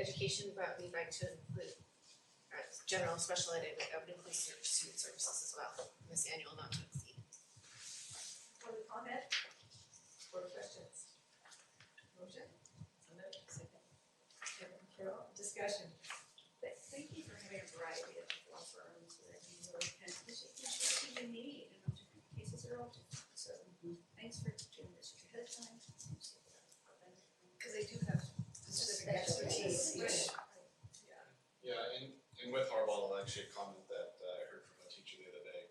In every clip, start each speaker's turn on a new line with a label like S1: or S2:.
S1: education brought me back to include uh general special ed and I would include ser- student services as well, in this annual not to exceed.
S2: Public comment? Or questions? Motion? Second. Kevin Carroll, discussion. Th- Thank you for having a variety of law firms that you really can, because you really need, and all different cases are all different, so thanks for doing this ahead of time.
S1: Cause they do have
S2: specific expertise,
S1: Right.
S3: Yeah, and, and with Harbaugh, I'll actually comment that uh, I heard from a teacher the other day.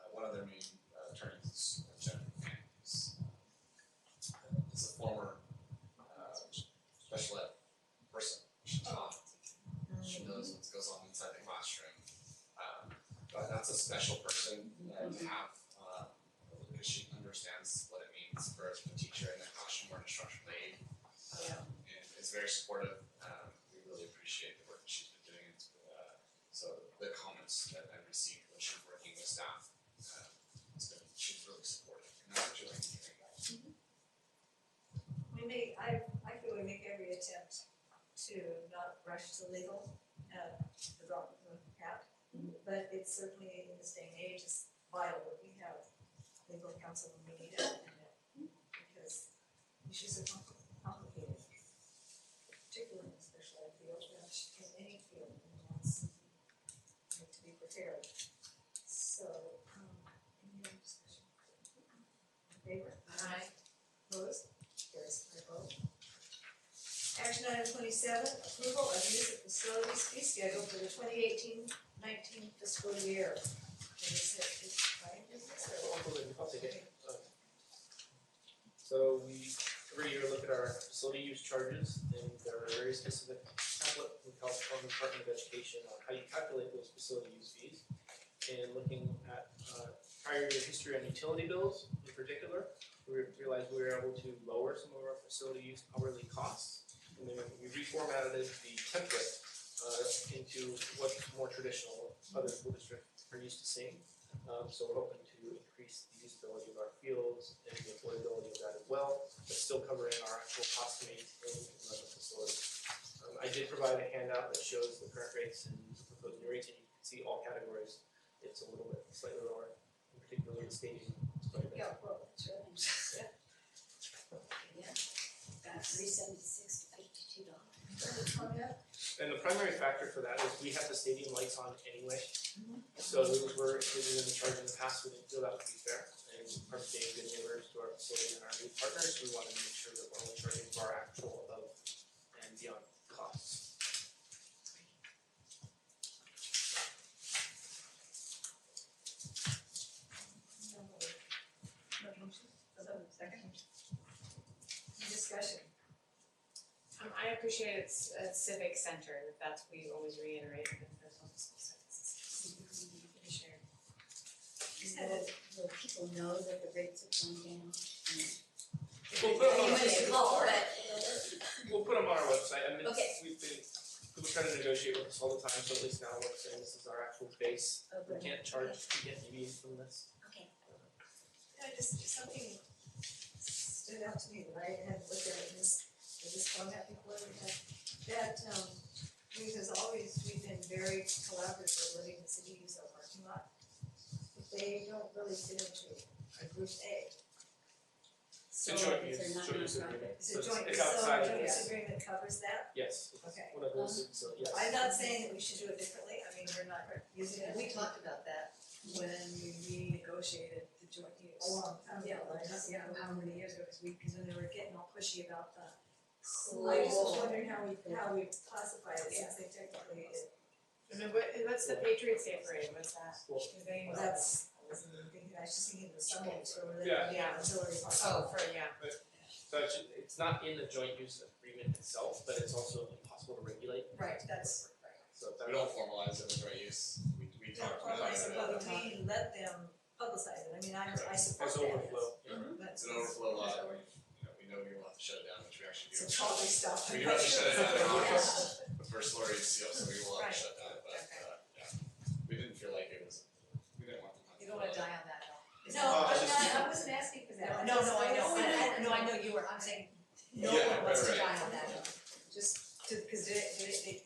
S3: Uh, one of their main uh, attorneys is uh, Jennifer Manning, who's, uh, is a former uh, special ed person. She taught. She knows what goes on inside the classroom. Um, but that's a special person uh, to have uh, because she understands what it means for a teacher in the classroom or an instructional aide um, and is very supportive. Um, we really appreciate the work that she's been doing. It's, uh, so the comments that I've received when she's working with staff, uh, it's been, she's really supportive, and I'm enjoying hearing that.
S2: We make, I, I feel we make every attempt to not rush to legal, uh, the wrong, the path. But it's certainly in this day and age is vital that we have legal counsel when we need it, and that- because issues are compli- complicated. Particularly in the special ed field, but in any field, and wants to be prepared. So, um, any other discussion? In favor?
S1: Aye.
S2: Opposed? Carries by vote. Action item twenty-seven, approval of use of facilities fee schedule for the 2018-19 fiscal year. Is it, is it Brian, is it, or-
S4: I'll take it. So we every year look at our facility use charges and there are very specific template from the California Department of Education on how you calculate those facility use fees. And looking at uh prior year history on utility bills in particular, we realized we were able to lower some of our facility use hourly costs. And then we reformatted the template uh into what's more traditional, other school districts are used to seeing. Um, so we're hoping to increase the usability of our fields and the affordability of that as well, but still covering our actual cost to maintain and run the facility. Um, I did provide a handout that shows the current rates and the proposed new rates, and you can see all categories. It's a little bit slightly lower, in particular the staging. is quite a bit.
S2: Yeah, well, sure.
S5: three seventy-six to fifty-two dollars.
S2: Further comment?
S4: And the primary factor for that is we have the stadium lights on anyway. So those were included in the charge in the past, we didn't feel that would be fair. And our being good neighbors to our facility and our new partners, we wanted to make sure that we're only charging for our actual above and beyond costs.
S2: No vote. No motion? So, second. Any discussion?
S6: Um, I appreciate it's a civic center, that's we always reiterate in the personal school services.
S2: Commissioner.
S5: Is that it? Will people know that the rates have gone down?
S4: We'll put them
S5: They
S4: on, our-
S5: may call, but
S4: we'll put them on our website, I mean,
S5: Okay.
S4: we've been, people try to negotiate with us all the time, so at least now we're saying this is our actual base.
S5: Oh,
S4: We
S5: good.
S4: can't charge, we get deviate from this.
S5: Okay.
S2: Yeah, just something stood out to me that I hadn't looked at in this, in this format before, that, that, um, we has always, we've been very collaborative with letting the city use our parking lot. But they don't really fit into a group A. So,
S4: It's a joint
S5: if they're
S4: use,
S5: not
S4: joint use
S5: nonprofit.
S4: agreement.
S2: it's
S4: So
S2: a joint,
S4: It's
S2: so
S4: outside
S2: a
S4: of
S2: joint
S4: this.
S2: use agreement covers that.
S4: Yes, it's
S2: Okay.
S4: one of those, so yes.
S2: I'm not saying that we should do it differently, I mean, we're not using it.
S1: We talked about that when we renegotiated the joint
S2: a
S1: use.
S2: long time ago, I don't
S1: Yeah.
S2: know how many years ago, because we, because then they were getting all pushy about the. I just was
S1: Cool.
S2: wondering how we, how we classify it, since they technically,
S6: Remember, what's the Patriots Day parade, what's that?
S4: Well,
S6: Do they-
S2: that's, I was thinking, I was just thinking of the summons, or were they,
S4: Yeah.
S2: yeah, auxiliary part.
S6: Oh, for, yeah,
S4: So it's, it's not in the joint use agreement itself, but it's also impossible to regulate,
S2: Right, that's,
S4: so if that.
S3: We don't formalize it with right use, we, we
S2: no,
S3: talked about
S2: well, I
S3: it, but
S2: suppose we let them publicize it, I mean, I, I support
S4: There's
S2: that.
S4: overflow.
S3: it's an overflow lot, we, you know, we know we will have to shut it down, which we actually do.
S2: It's a trolley stop.
S3: We do have to shut it down in
S4: Yeah.
S3: August, the first Lori is sealed, so we will have
S6: Right.
S3: to shut down, but, uh, yeah. We didn't feel like it was, we didn't want the.
S1: You don't wanna die on that hill.
S2: No,
S4: Oh,
S2: I'm
S4: just-
S2: not, I wasn't asking for that.
S1: No, no, I know,
S2: was-
S1: I, I, no, I know you were, I'm saying, no
S3: Yeah,
S1: one wants to
S3: right,
S1: die
S3: right.
S1: on that hill.
S2: Just to, because they, they, they